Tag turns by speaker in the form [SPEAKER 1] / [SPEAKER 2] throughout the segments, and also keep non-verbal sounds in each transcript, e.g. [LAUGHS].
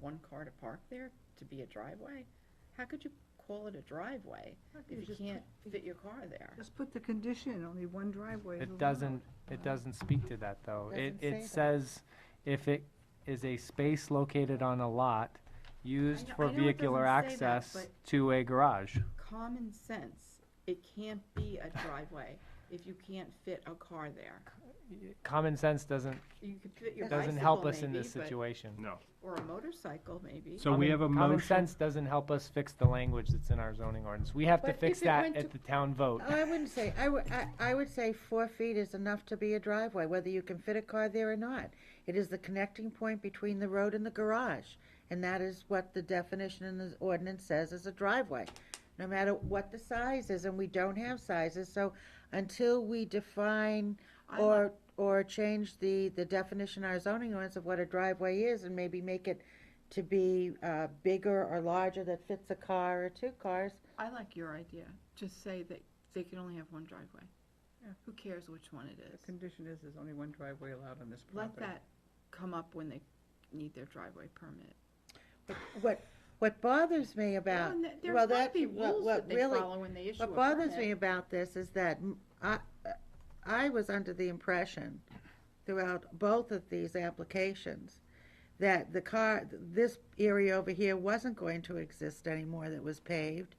[SPEAKER 1] one car to park there to be a driveway? How could you call it a driveway if you can't fit your car there?
[SPEAKER 2] Just put the condition, only one driveway. is
[SPEAKER 3] It
[SPEAKER 2] allowed.
[SPEAKER 3] doesn't, it doesn't speak to that, though. It,
[SPEAKER 4] Doesn't say
[SPEAKER 3] it
[SPEAKER 4] that.
[SPEAKER 3] says if it is a space located on a lot used
[SPEAKER 1] know- I
[SPEAKER 3] for
[SPEAKER 1] know it
[SPEAKER 3] vehicular
[SPEAKER 1] doesn't say that,
[SPEAKER 3] access to a garage.
[SPEAKER 1] Common sense, it can't be a driveway if you can't fit a car there.
[SPEAKER 3] Y- Common sense doesn't,
[SPEAKER 1] You could fit your
[SPEAKER 3] doesn't help
[SPEAKER 1] bicycle
[SPEAKER 3] us in this
[SPEAKER 1] maybe, but,
[SPEAKER 3] situation.
[SPEAKER 5] No.
[SPEAKER 1] or a motorcycle maybe.
[SPEAKER 5] So we
[SPEAKER 3] Common-
[SPEAKER 5] have a
[SPEAKER 3] Common
[SPEAKER 5] motion.
[SPEAKER 3] sense doesn't help us fix the language that's in our zoning ordinance. We have to
[SPEAKER 4] But
[SPEAKER 3] fix
[SPEAKER 4] if it
[SPEAKER 3] that
[SPEAKER 4] went
[SPEAKER 3] at
[SPEAKER 4] to- Oh,
[SPEAKER 3] the town vote.
[SPEAKER 4] I wouldn't say, I would, I, I would say four feet is enough to be a driveway, whether you can fit a car there or not. It is the connecting point between the road and the garage, and that is what the definition in the ordinance says is a driveway. No matter what the size is, and we don't have sizes, so until we define
[SPEAKER 2] I
[SPEAKER 4] or, or change the, the definition in our zoning ordinance of what a driveway is, and maybe make it to be, uh, bigger or larger that fits a car or two cars,
[SPEAKER 1] I like your idea, just say that they can only have one driveway. Who cares which one it
[SPEAKER 2] The condition is, there's only one driveway allowed on this property.
[SPEAKER 1] come up when they need their driveway permit.
[SPEAKER 4] What, what bothers me
[SPEAKER 1] Well,
[SPEAKER 4] about,
[SPEAKER 1] and th-
[SPEAKER 4] well,
[SPEAKER 1] There's gotta
[SPEAKER 4] that,
[SPEAKER 1] be
[SPEAKER 4] what,
[SPEAKER 1] rules that
[SPEAKER 4] what
[SPEAKER 1] they
[SPEAKER 4] really,
[SPEAKER 1] follow when they issue a
[SPEAKER 4] what bothers me
[SPEAKER 1] permit.
[SPEAKER 4] about this is that m- I, I was under the impression throughout both of these applications that the car, this area over here wasn't going to exist anymore that was paved,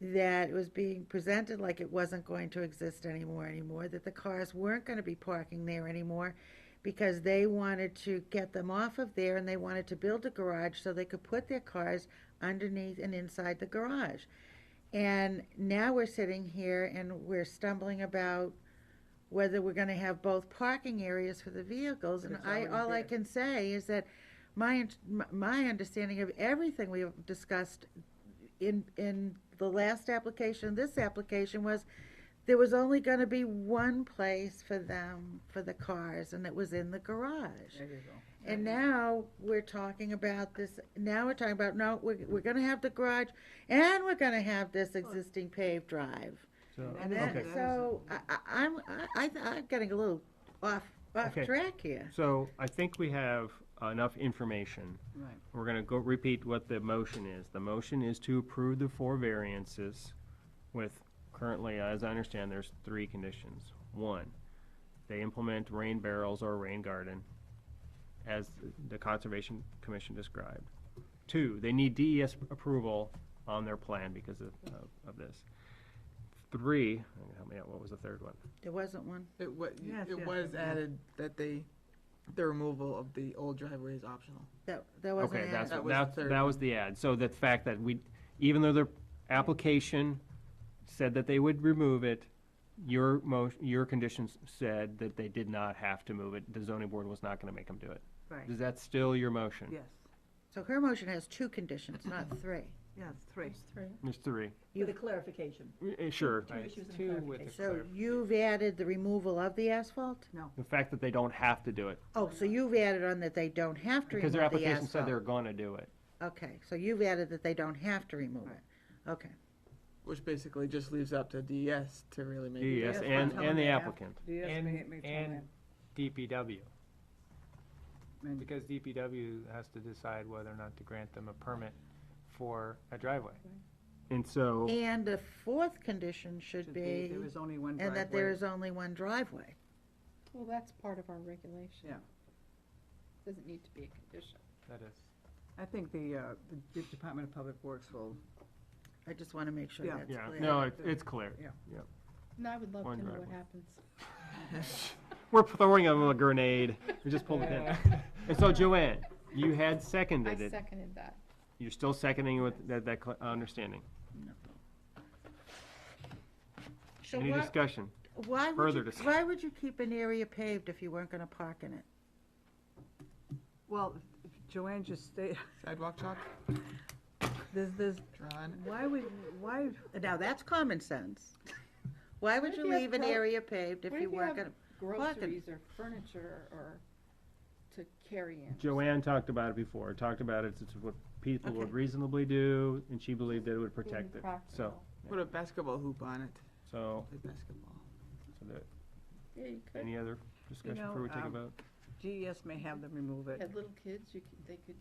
[SPEAKER 4] that it was being presented like it wasn't going to exist anymore anymore, that the cars weren't gonna be parking there anymore because they wanted to get them off of there and they wanted to build a garage so they could put their cars underneath and inside the garage. And now we're sitting here and we're stumbling about whether we're gonna have both parking areas for the vehicles.
[SPEAKER 2] But
[SPEAKER 4] And
[SPEAKER 2] it's
[SPEAKER 4] I,
[SPEAKER 2] already
[SPEAKER 4] all I
[SPEAKER 2] there.
[SPEAKER 4] can say is that my, int- my- my understanding of everything we have discussed in, in the last application, this application was there was only gonna be one place for them, for the cars, and it was in the garage.
[SPEAKER 2] There you go.
[SPEAKER 4] And now we're talking about this, now we're talking about, no, we're, we're gonna have the garage and we're gonna have this existing paved drive.
[SPEAKER 5] So-
[SPEAKER 4] And
[SPEAKER 2] That
[SPEAKER 4] that,
[SPEAKER 2] is-
[SPEAKER 5] Okay,
[SPEAKER 4] so I, I, I'm, I, I- I'm getting a little off, off
[SPEAKER 5] Okay.
[SPEAKER 4] track here.
[SPEAKER 5] so I think we have enough information.
[SPEAKER 2] Right.
[SPEAKER 5] We're gonna go repeat what the motion is. The motion is to approve the four variances with currently, as I understand, there's three conditions. One, they implement rain barrels or rain garden as the Conservation Commission described. Two, they need DES approval on their plan because of, of- of this. Three, help me out, what was the third one?
[SPEAKER 4] There wasn't one.
[SPEAKER 6] It was,
[SPEAKER 2] Yes, yes,
[SPEAKER 6] it was
[SPEAKER 2] yeah.
[SPEAKER 6] added that they, the removal of the old driveway is optional.
[SPEAKER 4] That, that wasn't
[SPEAKER 5] Okay,
[SPEAKER 4] added.
[SPEAKER 5] that's,
[SPEAKER 6] That was the
[SPEAKER 5] that's,
[SPEAKER 6] third
[SPEAKER 5] that was the ad. So the fact that we, even though the application said that they would remove it, your motion, your conditions said that they did not have to move it. The zoning board was not gonna make them do it.
[SPEAKER 2] Right,
[SPEAKER 5] Is that still your motion?
[SPEAKER 2] yes,
[SPEAKER 4] So her motion has two conditions, not three.
[SPEAKER 2] yes, three.
[SPEAKER 5] There's three.
[SPEAKER 2] With a clarification.
[SPEAKER 5] Eh, Sure.
[SPEAKER 2] Two issues and a
[SPEAKER 4] So you've added the removal of the asphalt?
[SPEAKER 5] The fact that they don't have to do it,
[SPEAKER 4] Oh, so you've added on that they don't have to remove
[SPEAKER 5] because
[SPEAKER 4] the
[SPEAKER 5] their
[SPEAKER 4] asphalt?
[SPEAKER 5] application said they were gonna do it.
[SPEAKER 4] Okay, so you've added that they don't have to remove it, okay.
[SPEAKER 6] Which basically just leaves up to DES to really make. it.
[SPEAKER 5] Yes,
[SPEAKER 2] that's what
[SPEAKER 5] and,
[SPEAKER 2] I'm
[SPEAKER 5] and the
[SPEAKER 2] telling you.
[SPEAKER 5] applicant.
[SPEAKER 2] Yes,
[SPEAKER 3] And-
[SPEAKER 2] may- may tell
[SPEAKER 3] and-
[SPEAKER 2] them.
[SPEAKER 3] DPW.
[SPEAKER 2] And-
[SPEAKER 3] Because DPW has to decide whether or not to grant them a permit for a driveway.
[SPEAKER 5] And so,
[SPEAKER 4] And the fourth condition should
[SPEAKER 2] Should be,
[SPEAKER 4] be,
[SPEAKER 2] there is only one driveway.
[SPEAKER 4] and that there is only one driveway.
[SPEAKER 1] Well, that's part of our regulation.
[SPEAKER 2] Yeah.
[SPEAKER 1] Doesn't need to be a condition.
[SPEAKER 3] That is.
[SPEAKER 2] I think the, uh, the Department of Public Works will
[SPEAKER 4] I just wanna make sure
[SPEAKER 2] Yeah.
[SPEAKER 4] that's
[SPEAKER 5] yeah,
[SPEAKER 4] clear.
[SPEAKER 5] no, it- it's clear.
[SPEAKER 1] No, I would love
[SPEAKER 5] One
[SPEAKER 1] to know what
[SPEAKER 5] driveway.
[SPEAKER 1] happens.
[SPEAKER 5] We're throwing them a grenade. We just pulled it in. [LAUGHS] And so Joanne, you
[SPEAKER 1] I
[SPEAKER 5] had seconded it.
[SPEAKER 1] seconded that.
[SPEAKER 5] You're still seconding with that, that cl- understanding.
[SPEAKER 4] So
[SPEAKER 5] Any
[SPEAKER 4] why,
[SPEAKER 5] discussion?
[SPEAKER 4] why would
[SPEAKER 5] further
[SPEAKER 4] you,
[SPEAKER 5] discuss-
[SPEAKER 4] why would you keep an area paved if you weren't gonna park in it?
[SPEAKER 2] Well, Joanne just stated,
[SPEAKER 6] [LAUGHS] Sidewalk chalk,
[SPEAKER 2] there's, there's,
[SPEAKER 6] drawn.
[SPEAKER 2] why would, why,
[SPEAKER 4] Now, that's common sense. Why
[SPEAKER 1] What
[SPEAKER 4] would
[SPEAKER 1] if
[SPEAKER 4] you
[SPEAKER 1] you have
[SPEAKER 4] leave an
[SPEAKER 1] pro-
[SPEAKER 4] area paved if
[SPEAKER 1] what
[SPEAKER 4] you
[SPEAKER 1] if you have
[SPEAKER 4] weren't gonna, Well, I could-
[SPEAKER 1] Groceries or furniture or to carry in.
[SPEAKER 5] Joanne talked about it before, talked about it, it's what people would
[SPEAKER 4] Okay.
[SPEAKER 5] reasonably do, and she believed that it would
[SPEAKER 1] Being
[SPEAKER 5] protect it. So,
[SPEAKER 1] practical.
[SPEAKER 6] Put a basketball hoop on it,
[SPEAKER 5] so,
[SPEAKER 6] play basketball.
[SPEAKER 5] so that-
[SPEAKER 1] Yeah, you could.
[SPEAKER 5] any other discussion
[SPEAKER 2] know,
[SPEAKER 5] before we take a
[SPEAKER 2] um,
[SPEAKER 5] vote?
[SPEAKER 2] GES may have them remove it.
[SPEAKER 1] Had little kids, you could, they could